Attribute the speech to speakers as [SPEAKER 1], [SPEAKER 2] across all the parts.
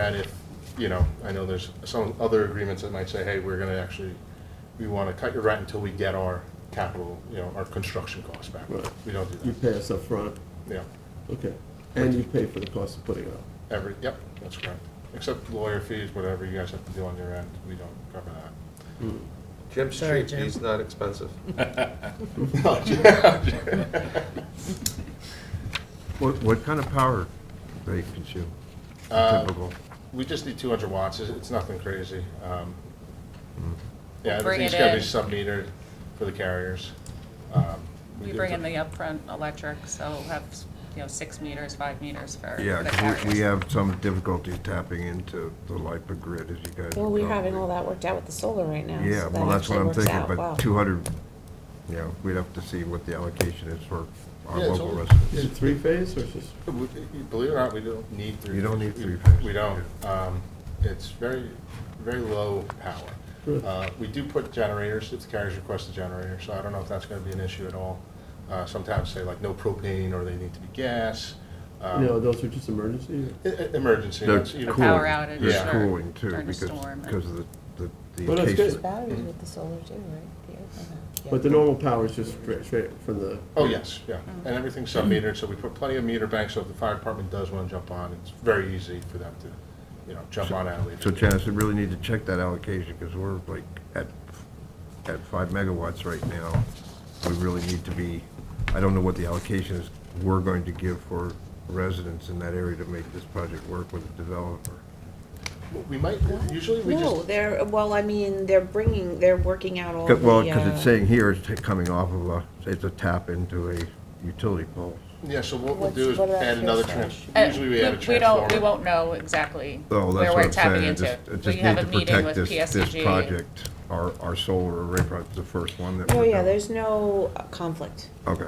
[SPEAKER 1] that if, you know, I know there's some other agreements that might say, hey, we're gonna actually, we wanna cut your rent until we get our capital, you know, our construction costs back.
[SPEAKER 2] Right.
[SPEAKER 1] We don't
[SPEAKER 2] You
[SPEAKER 1] do
[SPEAKER 2] pay us upfront,
[SPEAKER 1] that, yeah,
[SPEAKER 2] okay, and you pay for the cost of putting it up.
[SPEAKER 1] every, yep, that's correct. Except lawyer fees, whatever you guys have to do on your end, we don't cover that.
[SPEAKER 3] Jim's
[SPEAKER 4] Sorry,
[SPEAKER 3] cheap,
[SPEAKER 4] Jim.
[SPEAKER 3] he's not expensive.
[SPEAKER 5] What, what kind of power they consume?
[SPEAKER 1] Uh,
[SPEAKER 5] Typical.
[SPEAKER 1] We just need two hundred watts, it's, it's nothing crazy. Um,
[SPEAKER 5] Mm.
[SPEAKER 1] Yeah,
[SPEAKER 6] We'll bring
[SPEAKER 1] everything's
[SPEAKER 6] it
[SPEAKER 1] gotta be
[SPEAKER 6] in.
[SPEAKER 1] sub-metered for the carriers. Um,
[SPEAKER 6] We
[SPEAKER 1] did
[SPEAKER 6] bring in the upfront electric, so we'll have, you know, six meters, five meters for
[SPEAKER 5] Yeah,
[SPEAKER 6] the
[SPEAKER 5] 'cause we, we
[SPEAKER 6] carriers.
[SPEAKER 5] have some difficulty tapping into the LIPA grid, as you guys.
[SPEAKER 7] Well, we're
[SPEAKER 5] know.
[SPEAKER 7] having all that worked out with the solar right now.
[SPEAKER 5] Oh, Yeah,
[SPEAKER 7] so
[SPEAKER 5] well, that's what
[SPEAKER 7] actually
[SPEAKER 5] I'm
[SPEAKER 7] works
[SPEAKER 5] thinking,
[SPEAKER 7] out
[SPEAKER 5] but
[SPEAKER 7] well.
[SPEAKER 5] two hundred, you know, we'd have to see what the allocation is for our
[SPEAKER 1] Yeah, it's
[SPEAKER 5] local
[SPEAKER 1] all-
[SPEAKER 2] Is
[SPEAKER 5] residents.
[SPEAKER 2] it three phase or is it?
[SPEAKER 1] We- Believe it or not, we don't need three.
[SPEAKER 5] You don't need
[SPEAKER 1] we-
[SPEAKER 5] three-phase.
[SPEAKER 1] We don't. Um, It's very, very low power.
[SPEAKER 2] Good.
[SPEAKER 1] Uh, We do put generators, if the carriers request a generator, so I don't know if that's gonna be an issue at all. Uh, Sometimes say like no propane, or they need to be gas. um,
[SPEAKER 2] No, those are just emergency?
[SPEAKER 1] e- e- Emergency.
[SPEAKER 5] They're
[SPEAKER 1] that's, you know,
[SPEAKER 5] cool.
[SPEAKER 6] Power outage
[SPEAKER 1] Yeah.
[SPEAKER 5] They're
[SPEAKER 6] or-
[SPEAKER 5] cooling too,
[SPEAKER 6] during a
[SPEAKER 5] because,
[SPEAKER 6] storm.
[SPEAKER 5] because of the, the-
[SPEAKER 2] Well,
[SPEAKER 5] the
[SPEAKER 2] that's
[SPEAKER 7] There's
[SPEAKER 2] good.
[SPEAKER 5] encasement.
[SPEAKER 7] batteries with the solar too, right? The overhead. Yeah.
[SPEAKER 2] But the normal power is just straight, straight from the.
[SPEAKER 1] Oh, yes, yeah. And everything's sub-metered, so we put plenty of meter banks, so if the fire department does wanna jump on, it's very easy for them to, you know, jump on and leave.
[SPEAKER 5] So Janice, we really need to check that allocation, because we're like at, at five megawatts right now. We really need to be, I don't know what the allocation is we're going to give for residents in that area to make this project work with the developer.
[SPEAKER 1] We might, usually we just.
[SPEAKER 7] No, they're, well, I mean, they're bringing, they're working out all the.
[SPEAKER 5] 'Cause- Well, because
[SPEAKER 7] uh,
[SPEAKER 5] it's saying here, it's ta- coming off of a, it's a tap into a utility pole.
[SPEAKER 1] Yeah, so what we'll
[SPEAKER 7] What's-
[SPEAKER 1] do is
[SPEAKER 7] what about
[SPEAKER 1] add another
[SPEAKER 7] fuel
[SPEAKER 1] trans,
[SPEAKER 6] Uh,
[SPEAKER 1] usually we add a transformer.
[SPEAKER 6] don't, we won't know exactly
[SPEAKER 5] Oh,
[SPEAKER 6] where
[SPEAKER 5] that's what
[SPEAKER 6] we're
[SPEAKER 5] I'm saying.
[SPEAKER 6] tapping
[SPEAKER 5] I
[SPEAKER 6] into.
[SPEAKER 5] just- I
[SPEAKER 6] But
[SPEAKER 5] just
[SPEAKER 6] you have
[SPEAKER 5] need
[SPEAKER 6] a
[SPEAKER 5] to
[SPEAKER 6] meeting
[SPEAKER 5] protect
[SPEAKER 6] with E
[SPEAKER 5] this- This
[SPEAKER 6] PSG.
[SPEAKER 5] project, our, our solar array project, the first one that
[SPEAKER 7] No,
[SPEAKER 5] we're
[SPEAKER 7] Oh, yeah,
[SPEAKER 5] doing.
[SPEAKER 7] there's no uh, conflict
[SPEAKER 5] Okay.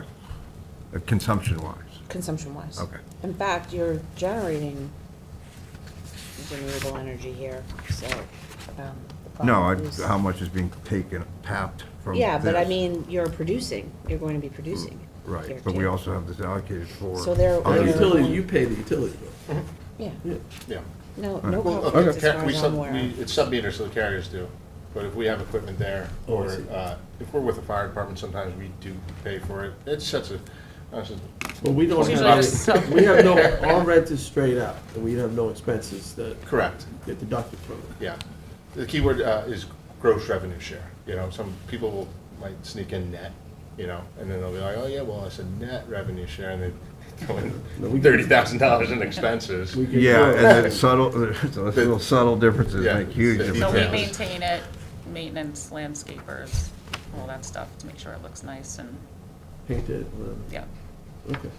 [SPEAKER 5] Uh, Consumption-wise.
[SPEAKER 7] consumption wise.
[SPEAKER 5] Okay.
[SPEAKER 7] In fact, you're generating renewable energy here, so. um, the
[SPEAKER 5] No,
[SPEAKER 7] problem is-
[SPEAKER 5] I- how much is being taken, tapped from
[SPEAKER 7] Yeah, but I
[SPEAKER 5] this?
[SPEAKER 7] mean, you're producing, you're going to be producing. here,
[SPEAKER 5] Right, but we
[SPEAKER 7] too.
[SPEAKER 5] also have this allocated for.
[SPEAKER 7] So
[SPEAKER 1] Oh,
[SPEAKER 7] there-
[SPEAKER 2] The
[SPEAKER 5] other-
[SPEAKER 7] there-
[SPEAKER 2] utility, you pay the utility bill.
[SPEAKER 7] Yeah,
[SPEAKER 2] Yeah.
[SPEAKER 1] Yeah.
[SPEAKER 7] no, no
[SPEAKER 1] Well,
[SPEAKER 7] conflict as
[SPEAKER 1] okay,
[SPEAKER 7] far
[SPEAKER 1] we
[SPEAKER 7] as
[SPEAKER 1] sub,
[SPEAKER 7] I'm
[SPEAKER 1] we,
[SPEAKER 7] aware.
[SPEAKER 1] it's sub-meter, so the carriers do, but if we have equipment there,
[SPEAKER 2] Oh, I
[SPEAKER 1] or,
[SPEAKER 2] see.
[SPEAKER 1] uh, if we're with the fire department, sometimes we do pay for it, it's such a, uh, that's a,
[SPEAKER 2] Well, we don't
[SPEAKER 6] Usually just
[SPEAKER 2] have,
[SPEAKER 6] sub-
[SPEAKER 2] any- we have no, our rent is straight out, and we have no expenses that
[SPEAKER 1] correct,
[SPEAKER 2] get deducted from it.
[SPEAKER 1] yeah. The key word, uh, is gross revenue share, you know, some people will, might sneak in net, you know, and then they'll be like, oh, yeah, well, it's a net revenue share, and they throw
[SPEAKER 2] No, we
[SPEAKER 1] in
[SPEAKER 2] get-
[SPEAKER 1] thirty thousand dollars in expenses.
[SPEAKER 2] We get-
[SPEAKER 5] Yeah, and then subtle, those little subtle differences
[SPEAKER 1] Yeah.
[SPEAKER 5] make huge
[SPEAKER 1] So we
[SPEAKER 6] So we
[SPEAKER 1] Yeah.
[SPEAKER 5] differences.
[SPEAKER 6] maintain it, maintenance, landscapers, all that stuff to make sure it looks nice and,
[SPEAKER 2] Painted, whatever.
[SPEAKER 6] yeah,
[SPEAKER 2] uh, Okay,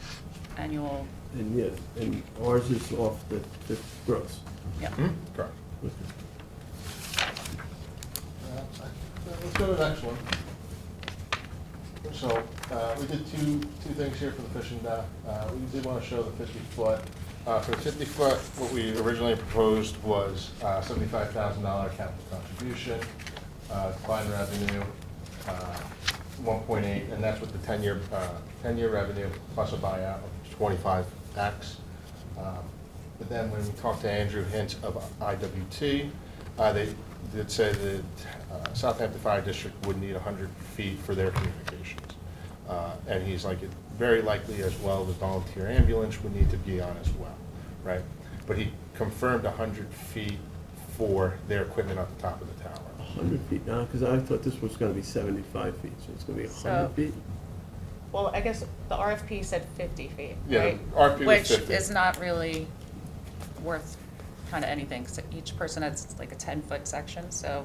[SPEAKER 6] annual,
[SPEAKER 2] and yeah, and ours is off the, the gross.
[SPEAKER 6] yeah.
[SPEAKER 1] Hmm? Correct.
[SPEAKER 2] Okay.
[SPEAKER 1] Uh, Let's go to the next one. So, uh, we did two, two things here for the fishing dock. Uh, We did want to show the fifty foot. Uh, For the fifty foot, what we originally proposed was uh, seventy-five thousand dollar capital contribution, uh, combined revenue, uh, one point eight, and that's with the ten-year, uh, ten-year revenue plus a buyout of twenty-five X. Um, But then when we talked to Andrew Hintz of IWT, uh, they did say that uh, Southampton Fire District would need 100 feet for their communications. Uh, And he's like, "It- very likely as well, the volunteer ambulance would need to be on as well, right? But he confirmed 100 feet for their equipment at the top of the tower.
[SPEAKER 2] Hundred feet now, because I thought this was gonna be seventy-five feet, so it's gonna be
[SPEAKER 6] So-
[SPEAKER 2] hundred feet.
[SPEAKER 6] Well, I guess the RFP said fifty feet,
[SPEAKER 1] Yeah,
[SPEAKER 6] right?
[SPEAKER 1] RFP was 50.
[SPEAKER 6] Which is not really worth kind of anything, so each person has like a ten-foot section, so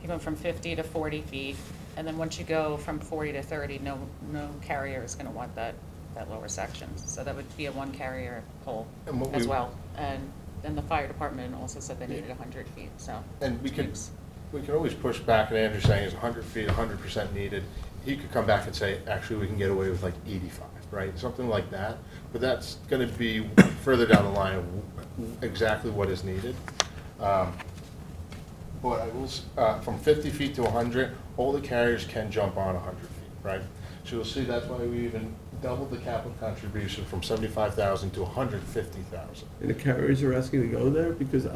[SPEAKER 6] you go from fifty to forty feet, and then once you go from forty to thirty, no, no carrier is gonna want that, that lower section. So that would be a one-carrier pole
[SPEAKER 1] And what
[SPEAKER 6] as
[SPEAKER 1] we-
[SPEAKER 6] well. And then the fire department also said they needed hundred feet, so.
[SPEAKER 1] And we could,
[SPEAKER 6] Oops.
[SPEAKER 1] we could always push back, and Andrew's saying it's 100 feet, 100% needed. He could come back and say, actually, we can get away with like 85, right? Something like that. But that's going to be further down the line, of exactly what is needed. Um, But I will, s- uh, from 50 feet to 100, all the carriers can jump on 100 feet, right? So you'll see that's why we even doubled the capital contribution from 75,000 to 150,000.
[SPEAKER 2] And the carriers are asking to go there, because